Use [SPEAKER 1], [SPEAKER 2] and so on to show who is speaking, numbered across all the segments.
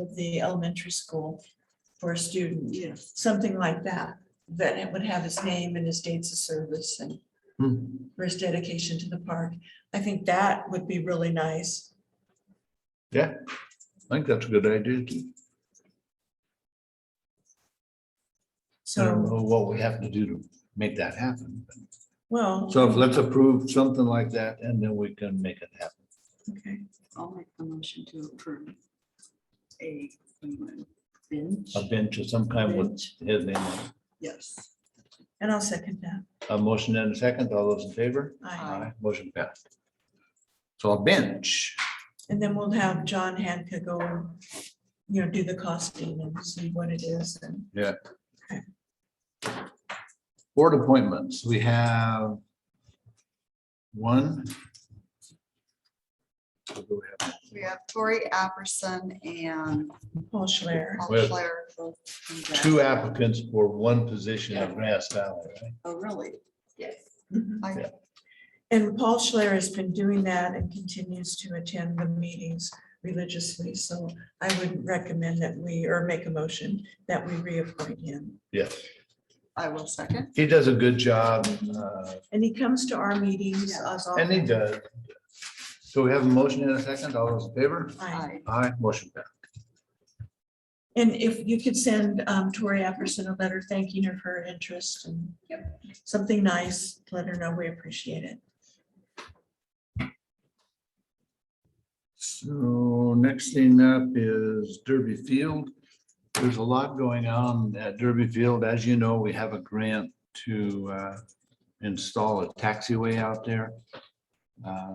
[SPEAKER 1] of the elementary school for a student,
[SPEAKER 2] Yes.
[SPEAKER 1] something like that. Then it would have his name and his dates of service and
[SPEAKER 3] Hmm.
[SPEAKER 1] for his dedication to the park. I think that would be really nice.
[SPEAKER 3] Yeah, I think that's a good idea. too. I don't
[SPEAKER 1] So,
[SPEAKER 3] know what we have to do to make that happen.
[SPEAKER 1] well,
[SPEAKER 3] So let's approve something like that and then we can make it happen.
[SPEAKER 1] okay,
[SPEAKER 2] I'll make the motion to approve a um, bench.
[SPEAKER 3] A bench of some kind with
[SPEAKER 2] Bench,
[SPEAKER 3] his name on it.
[SPEAKER 2] Yes.
[SPEAKER 1] and I'll second that.
[SPEAKER 3] A motion and a second. All those in favor?
[SPEAKER 1] Aye.
[SPEAKER 2] Aye.
[SPEAKER 3] Motion passed. So a bench.
[SPEAKER 1] And then we'll have John Hanka go, you know, do the costing and see what it is and
[SPEAKER 3] Board appointments, we have one. We'll go ahead.
[SPEAKER 2] We have Tori Apperson and
[SPEAKER 1] Paul Schler.
[SPEAKER 2] Paul
[SPEAKER 3] Well-
[SPEAKER 2] Flair.
[SPEAKER 3] Two applicants for one position at Grass Valley, right?
[SPEAKER 2] Oh, really? Yes.
[SPEAKER 1] Mhm.
[SPEAKER 2] I-
[SPEAKER 3] Yeah.
[SPEAKER 1] And Paul Schler has been doing that and continues to attend the meetings religiously. So I would recommend that we, or make a motion that we reappoint him.
[SPEAKER 3] Yes.
[SPEAKER 2] I will second.
[SPEAKER 3] He does a good job, uh,
[SPEAKER 1] And he comes to our meetings as
[SPEAKER 3] and he
[SPEAKER 1] often.
[SPEAKER 3] does. So we have a motion and a second. All those in favor?
[SPEAKER 1] Aye.
[SPEAKER 2] I
[SPEAKER 3] Aye, motion passed.
[SPEAKER 1] And if you could send um, Tori Apperson a letter thanking her for her interest and something nice, let her know we appreciate it.
[SPEAKER 3] So next thing up is Derby Field. There's a lot going on at Derby Field. As you know, we have a grant to uh, install a taxiway out there. Uh,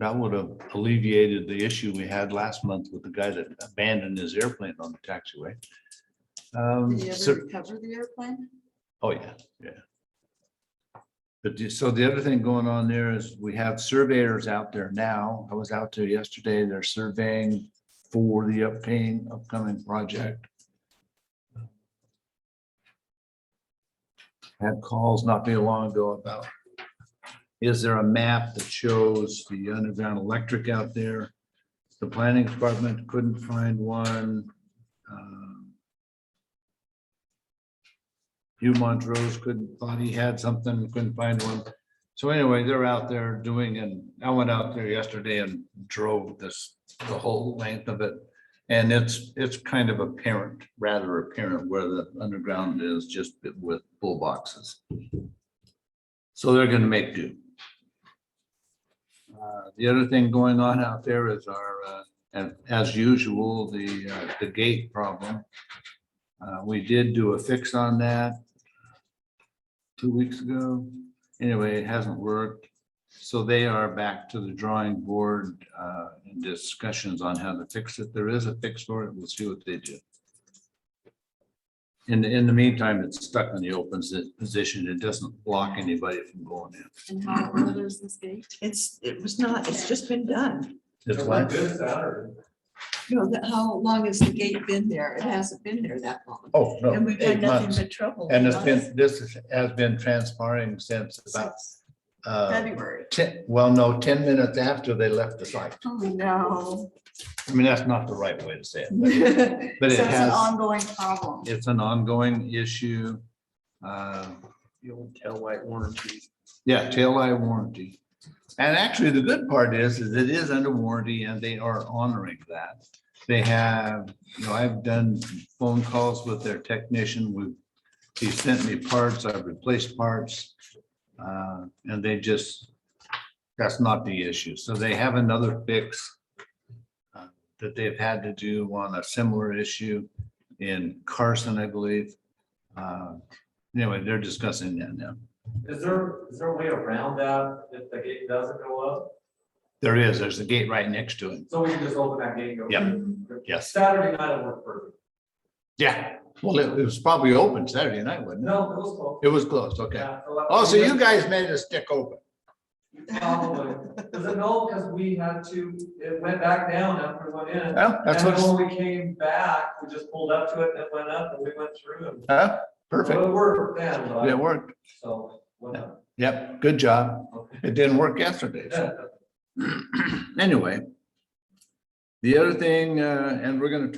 [SPEAKER 3] That would have alleviated the issue we had last month with the guy that abandoned his airplane on the taxiway. Um,
[SPEAKER 2] Did you
[SPEAKER 3] so-
[SPEAKER 2] ever recover the airplane?
[SPEAKER 3] Oh, yeah, yeah. But the- so the other thing going on there is we have surveyors out there now. I was out there yesterday. They're surveying for the upcoming, upcoming project. Had calls not too long ago about, is there a map that shows the underground electric out there? The planning department couldn't find one. Um, Hugh Montrose couldn't, thought he had something, couldn't find one. So anyway, they're out there doing, and I went out there yesterday and drove this, the whole length of it. And it's, it's kind of apparent, rather apparent where the underground is just with bull boxes. So they're gonna make do. Uh, The other thing going on out there is our, uh, and as usual, the, uh, the gate problem. Uh, We did do a fix on that two weeks ago. Anyway, it hasn't worked. So they are back to the drawing board uh, and discussions on how to fix it. There is a fix for it. We'll see what they do. In, the- in the meantime, it's stuck in the open si- position. It doesn't block anybody from going in.
[SPEAKER 2] And how old is this gate?
[SPEAKER 1] It's, it was not, it's just been done.
[SPEAKER 3] It's like,
[SPEAKER 2] No, that, how long has the gate been there? It hasn't been there that long.
[SPEAKER 3] oh, no.
[SPEAKER 1] And we've
[SPEAKER 3] eight
[SPEAKER 1] had nothing
[SPEAKER 3] months.
[SPEAKER 1] but trouble.
[SPEAKER 3] And it's been, this is- has been transpiring since about
[SPEAKER 2] Since
[SPEAKER 3] uh,
[SPEAKER 2] February.
[SPEAKER 3] ten, well, no, ten minutes after they left the site.
[SPEAKER 2] Oh, no.
[SPEAKER 3] I mean, that's not the right way to say it,
[SPEAKER 2] So
[SPEAKER 3] but
[SPEAKER 2] it's
[SPEAKER 3] but it
[SPEAKER 2] an
[SPEAKER 3] has,
[SPEAKER 2] ongoing problem.
[SPEAKER 3] it's an ongoing issue. Uh,
[SPEAKER 4] the old taillight warranty.
[SPEAKER 3] Yeah, taillight warranty. And actually, the good part is, is it is under warranty and they are honoring that. They have, you know, I've done phone calls with their technician. We, he sent me parts, I've replaced parts. uh, And they just, that's not the issue. So they have another fix uh, that they've had to do on a similar issue in Carson, I believe. Uh, Anyway, they're discussing that now.
[SPEAKER 4] Is there, is there a way around that if the gate doesn't go up?
[SPEAKER 3] There is, there's a gate right next to it.
[SPEAKER 4] So we can just open that gate and go.
[SPEAKER 3] Yeah. Yes.
[SPEAKER 4] Saturday night it worked perfect.
[SPEAKER 3] Yeah. Well, it it was probably open Saturday night, wasn't it?
[SPEAKER 4] No, it was closed.
[SPEAKER 3] It was closed, okay.
[SPEAKER 4] Yeah, so that-
[SPEAKER 3] Oh, so you guys made it stick open.
[SPEAKER 4] Probably. Is it no, because we had to, it went back down after it went in.
[SPEAKER 3] Well, that's
[SPEAKER 4] And then
[SPEAKER 3] what's,
[SPEAKER 4] when we came back, we just pulled up to it and it went up and we went through and.
[SPEAKER 3] huh? Perfect.
[SPEAKER 4] It worked then, but-
[SPEAKER 3] It worked.
[SPEAKER 4] so, whatever.
[SPEAKER 3] Yep, good job.
[SPEAKER 4] Okay.
[SPEAKER 3] It didn't work yesterday. so. Anyway, The other thing, uh, and we're gonna